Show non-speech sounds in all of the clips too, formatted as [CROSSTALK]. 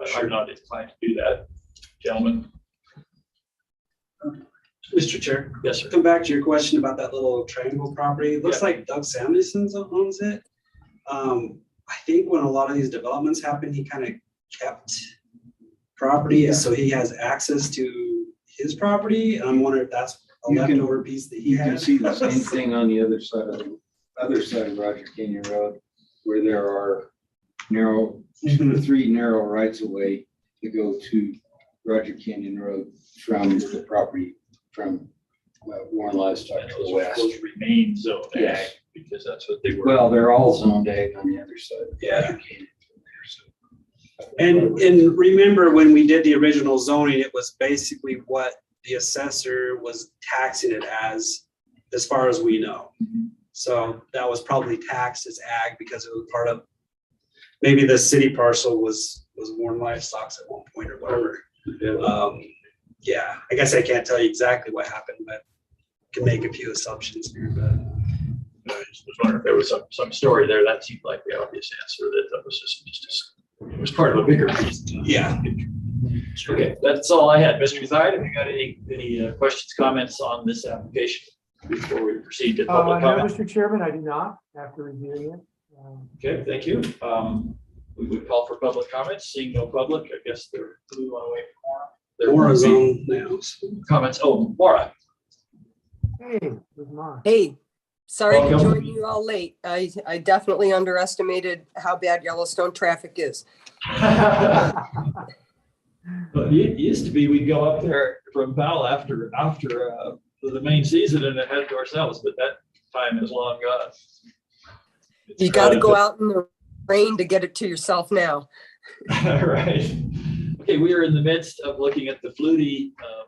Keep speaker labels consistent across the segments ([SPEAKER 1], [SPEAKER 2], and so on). [SPEAKER 1] but I'm not inclined to do that, gentlemen.
[SPEAKER 2] Mr. Chair,
[SPEAKER 1] Yes, sir.
[SPEAKER 2] come back to your question about that little triangle property. It looks
[SPEAKER 1] Yeah.
[SPEAKER 2] like Doug Samuelson owns it. Um, I think when a lot of these developments happened, he kind of kept property, so he has access to his property. And I'm wondering if that's a
[SPEAKER 3] You can-
[SPEAKER 2] leftover piece that he
[SPEAKER 3] You can
[SPEAKER 2] has.
[SPEAKER 3] see the
[SPEAKER 2] [LAUGHS]
[SPEAKER 3] same thing on the other side of, other side of Roger Canyon Road, where there are narrow, two or three narrow rights of way to go to Roger Canyon Road from the property, from uh, Warren Livestock
[SPEAKER 1] And
[SPEAKER 3] to the
[SPEAKER 1] those-
[SPEAKER 3] west.
[SPEAKER 1] Those remain zone ag,
[SPEAKER 3] Yes.
[SPEAKER 1] because that's what they were.
[SPEAKER 3] Well, they're all zoned ag on the other side. of
[SPEAKER 1] Yeah.
[SPEAKER 3] Roger Canyon from there, so.
[SPEAKER 2] And, and remember when we did the original zoning, it was basically what the assessor was taxing it as, as far as we know. So that was probably taxed as ag because it was part of, maybe the city parcel was, was worn livestock at one point or whatever. Um, yeah, I guess I can't tell you exactly what happened, but can make a few assumptions here, but.
[SPEAKER 1] I just was wondering if there was some, some story there. That seemed like the obvious answer that that was just, just, it was part of a bigger piece.
[SPEAKER 2] Yeah.
[SPEAKER 1] Okay, that's all I had. Mr. Thide, have you got any, any uh, questions, comments on this application before we proceed to
[SPEAKER 4] Uh,
[SPEAKER 1] public
[SPEAKER 4] no,
[SPEAKER 1] comment?
[SPEAKER 4] Mr. Chairman, I do not, after reviewing it. Um,
[SPEAKER 1] Okay, thank you. Um, we would call for public comments. Seeing no public, I guess they're flew on away from Warren. There
[SPEAKER 2] Or a
[SPEAKER 1] won't be
[SPEAKER 2] zone now.
[SPEAKER 1] Comments. Oh, Laura.
[SPEAKER 4] Hey, it was mine.
[SPEAKER 5] Hey, sorry to
[SPEAKER 1] Welcome.
[SPEAKER 5] join you all late. I, I definitely underestimated how bad Yellowstone traffic is.
[SPEAKER 1] But it used to be, we'd go up there from Powell after, after, uh, the main season and it had to ourselves, but that time is long gone.
[SPEAKER 5] You got to go out in the rain to get it to yourself now.
[SPEAKER 1] All [LAUGHS] right. Okay, we are in the midst of looking at the Flutie um,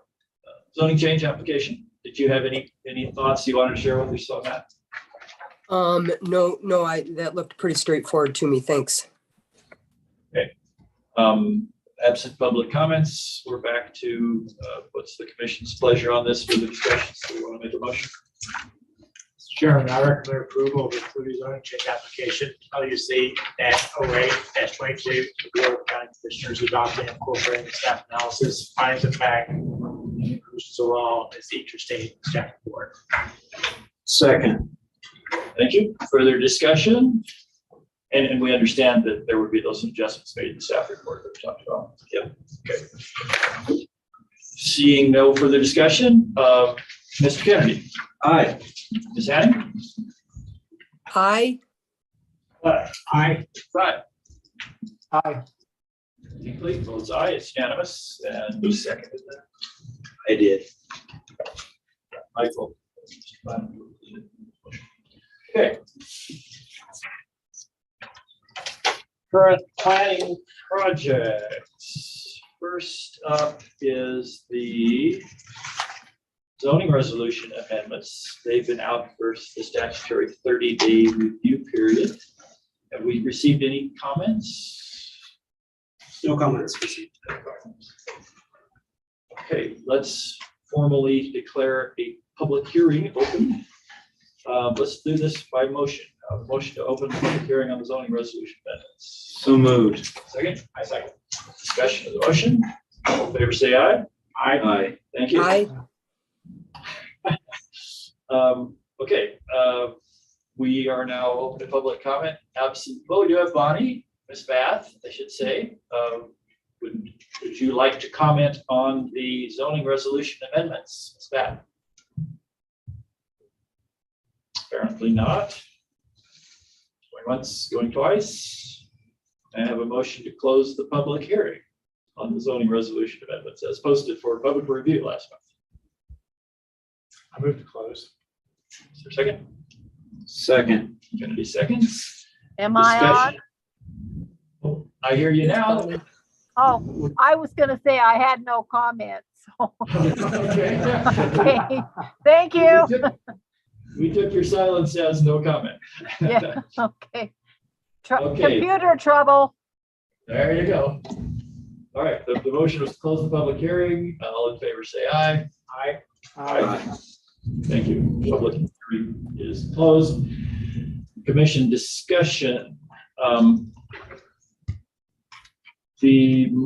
[SPEAKER 1] uh, zoning change application. Did you have any, any thoughts you wanted to share with us on that?
[SPEAKER 5] Um, no, no, I, that looked pretty straightforward to me. Thanks.
[SPEAKER 1] Um, absent public comments, we're back to, uh, what's the commission's pleasure on this for the discussion? So we want to make a motion?
[SPEAKER 6] Mr. Chairman, I recommend approval of the Clutie zoning change application, LUC dash oh eight dash twenty-two. The Board of County Commissioners adopting and incorporating the staff analysis, finds of fact, and conclusions of law as interstate staff report.
[SPEAKER 3] Second.
[SPEAKER 1] Thank you. Further discussion? And, and we understand that there would be those adjustments made in the staff report that we talked about. Yep. Okay. Seeing no further discussion, uh, Mr. Kennedy,
[SPEAKER 3] Aye.
[SPEAKER 1] Ms. Hattie?
[SPEAKER 5] Hi,
[SPEAKER 6] Aye.
[SPEAKER 1] Right.
[SPEAKER 4] Hi,
[SPEAKER 1] Hinckley votes aye, it's unanimous, and who seconded that?
[SPEAKER 3] I did.
[SPEAKER 1] Michael. Okay. Current planning projects. First up is the zoning resolution amendments. They've been out for the statutory thirty day review period. Have we received any comments?
[SPEAKER 2] No comments received.
[SPEAKER 1] Okay, let's formally declare a public hearing open. Uh, Let's do this by motion. Uh, Motion to open the public hearing on the zoning resolution amendments.
[SPEAKER 3] So moved.
[SPEAKER 1] Second? I second. Discussion of the motion. All in favor, say aye.
[SPEAKER 3] Aye.
[SPEAKER 1] Thank you.
[SPEAKER 5] hi.
[SPEAKER 1] Um, Okay, uh, we are now open to public comment. Absent, oh, we do have Bonnie, Miss Bath, I should say. Um, Would would you like to comment on the zoning resolution amendments, Ms. Bath? Apparently not. Going once, going twice. I have a motion to close the public hearing on the zoning resolution amendments as posted for public review last month.
[SPEAKER 6] I move to close.
[SPEAKER 1] Is there a second?
[SPEAKER 3] Second.
[SPEAKER 1] Kennedy seconds.
[SPEAKER 7] Am I on?
[SPEAKER 1] Discussion. Oh, I hear you now. [LAUGHS]
[SPEAKER 7] Oh, I was gonna say I had no comments. [LAUGHS]
[SPEAKER 1] Okay.
[SPEAKER 7] Okay, Thank you.
[SPEAKER 1] We took- We took your silence as no comment.
[SPEAKER 7] Yeah. Okay. Tr-
[SPEAKER 1] Okay.
[SPEAKER 7] Computer trouble.
[SPEAKER 1] [LAUGHS] There you go. All right, the, the motion was to close the public hearing. All in favor, say aye. Aye.
[SPEAKER 4] hi.
[SPEAKER 1] Thank you. Public hearing is closed. Commission discussion. Um, The